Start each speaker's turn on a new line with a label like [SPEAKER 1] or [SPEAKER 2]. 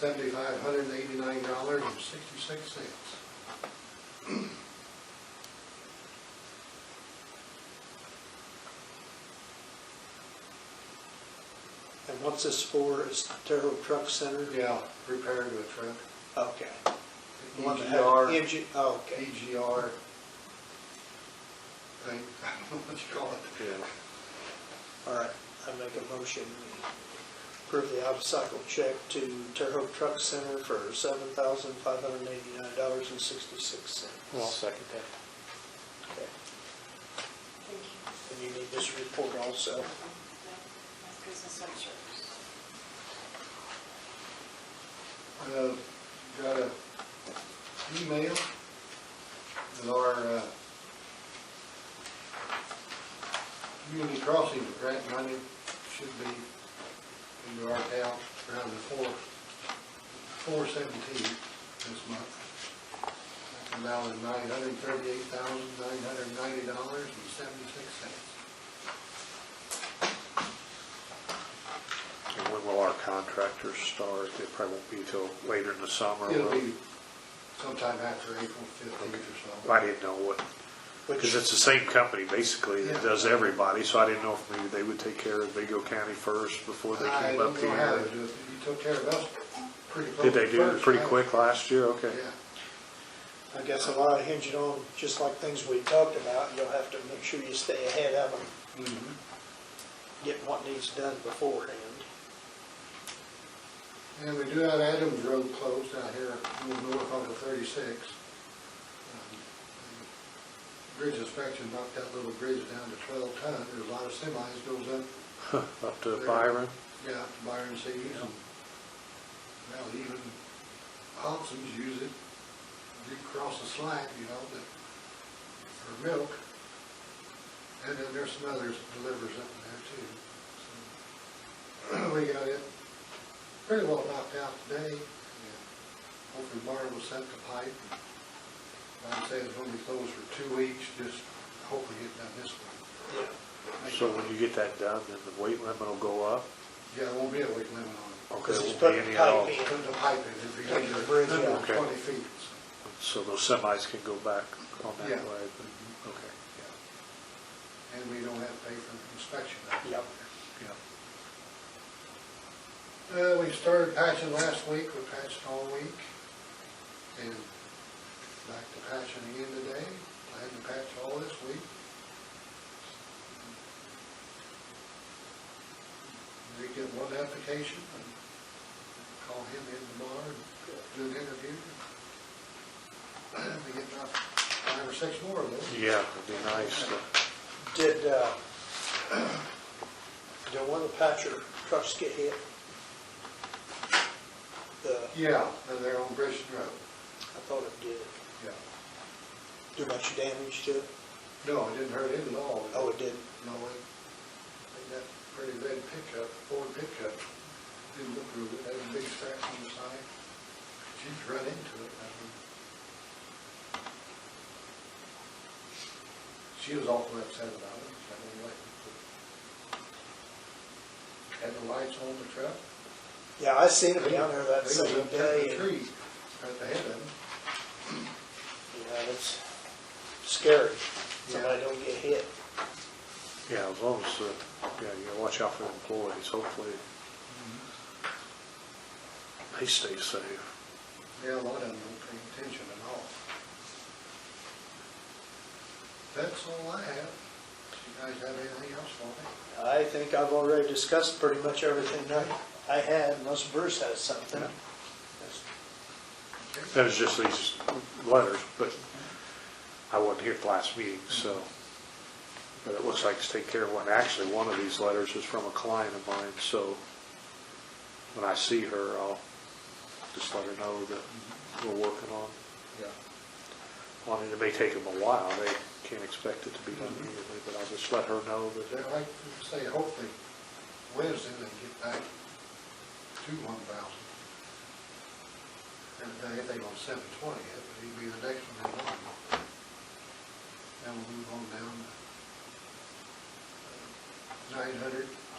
[SPEAKER 1] Seventy-five hundred and eighty-nine dollars and sixty-six cents.
[SPEAKER 2] And what's this for, is the Terrell Truck Center?
[SPEAKER 1] Yeah, repair to a truck.
[SPEAKER 2] Okay. The one that
[SPEAKER 3] E
[SPEAKER 2] had-
[SPEAKER 1] EGR,
[SPEAKER 2] EG oh, okay.
[SPEAKER 1] EGR. Thing, I don't know what you call it.
[SPEAKER 2] All right, I make a motion, we approve the out-of-cycle check to Terrell Truck Center for seven thousand five hundred eighty-nine dollars and sixty-six
[SPEAKER 3] I'll
[SPEAKER 2] cents.
[SPEAKER 3] second that.
[SPEAKER 2] Okay. And you need this report also.
[SPEAKER 4] That's business insurance.
[SPEAKER 1] Uh, Got a email that our uh, community crossing grant money should be into our account around the four, four seventeen this month. That's an amount of nine hundred thirty-eight thousand, nine hundred ninety dollars and seventy-six cents.
[SPEAKER 3] And when will our contractors start? It probably won't be till later in the summer.
[SPEAKER 1] It'll
[SPEAKER 3] will it?
[SPEAKER 1] be sometime after April fifteenth or so.
[SPEAKER 3] I didn't know what, because it's the same company basically that does everybody, so I didn't know if maybe they would take care of Vigo County first before they
[SPEAKER 1] I
[SPEAKER 3] came up
[SPEAKER 1] don't know how
[SPEAKER 3] here.
[SPEAKER 1] they do it. You took care of us pretty close.
[SPEAKER 3] Did they do it
[SPEAKER 1] first,
[SPEAKER 3] pretty
[SPEAKER 1] right?
[SPEAKER 3] quick last year? Okay.
[SPEAKER 1] Yeah.
[SPEAKER 2] I guess a lot of hinging on, just like things we talked about, you'll have to make sure you stay ahead of them,
[SPEAKER 1] Mhm.
[SPEAKER 2] get what needs done beforehand.
[SPEAKER 1] And we do have Adams Road closed out here, a little north on the thirty-six. Um, the Bridge inspection knocked that little bridge down to twelve ton. There's a lot of semis goes up,
[SPEAKER 3] Up to
[SPEAKER 1] There.
[SPEAKER 3] Byron?
[SPEAKER 1] yeah, to Byron Cities and, well, even Hobson's use it. You cross the slack, you know, that, for milk. And then there's some others that delivers up in there too. So, We got it pretty well knocked out today. and Hopefully Byron will set the pipe. Like I say, it's only closed for two weeks, just hopefully get done this one.
[SPEAKER 2] Yeah.
[SPEAKER 3] So when you get that done, then the weight limit will go up?
[SPEAKER 1] Yeah, it won't be a week limit on it.
[SPEAKER 3] Okay,
[SPEAKER 2] Because
[SPEAKER 3] there
[SPEAKER 2] he's putting
[SPEAKER 3] won't be any at all.
[SPEAKER 2] pipe in.
[SPEAKER 1] Put the pipe in, it'd be
[SPEAKER 2] Take
[SPEAKER 1] under,
[SPEAKER 2] the bridge
[SPEAKER 1] under
[SPEAKER 2] out.
[SPEAKER 1] twenty feet. so,
[SPEAKER 3] So those semis can go back on that way?
[SPEAKER 1] Yeah.
[SPEAKER 3] but- Okay,
[SPEAKER 1] yeah. And we don't have to pay for inspection.
[SPEAKER 2] Yep.
[SPEAKER 3] yeah.
[SPEAKER 1] Uh, we started patching last week, we patched all week, and back to patching again today, plan to patch all this week. We get one application, and call him in tomorrow, and do an interview. We get about five or six more of those.
[SPEAKER 3] Yeah, it'd be nice to.
[SPEAKER 2] Did, uh, did one of the Patcher trucks get hit? The,
[SPEAKER 1] Yeah, and they're on Bridgeton Road.
[SPEAKER 2] I thought it did.
[SPEAKER 1] Yeah.
[SPEAKER 2] Do much damage to it?
[SPEAKER 1] No, it didn't hurt him at all.
[SPEAKER 2] Oh, it didn't.
[SPEAKER 1] No, it, it got pretty red pickup, Ford pickup, didn't look real good, had a big scratch on the side. She's run into it, I mean. She was awful upset about it, so I mean, like, had the lights on the truck.
[SPEAKER 2] Yeah, I seen it down there that
[SPEAKER 1] They was
[SPEAKER 2] same
[SPEAKER 1] up there in
[SPEAKER 2] day.
[SPEAKER 1] the
[SPEAKER 2] and-
[SPEAKER 1] Tree, at the head of them.
[SPEAKER 2] Yeah, that's scary. Somebody don't get hit.
[SPEAKER 3] Yeah, as long as, uh, yeah, you gotta watch out for employees, hopefully
[SPEAKER 2] Mm-hmm.
[SPEAKER 3] they stay safe.
[SPEAKER 1] Yeah, a lot of them don't pay attention at all. That's all I have. You guys have anything else for me?
[SPEAKER 2] I think I've already discussed pretty much everything I, I had, unless Bruce has something.
[SPEAKER 3] That was just these letters, but I wasn't here at the last meeting, so. But it looks like it's taken care of, and actually, one of these letters is from a client of mine, so when I see her, I'll just let her know that we're working on,
[SPEAKER 1] Yeah.
[SPEAKER 3] on it. It may take them a while, they can't expect it to be done immediately, but I'll just let her know that
[SPEAKER 1] I'd like to say hopefully Wednesday they get back to one thousand. And they, they on seven twenty, it would be the next one in line. Then we'll move on down to nine hundred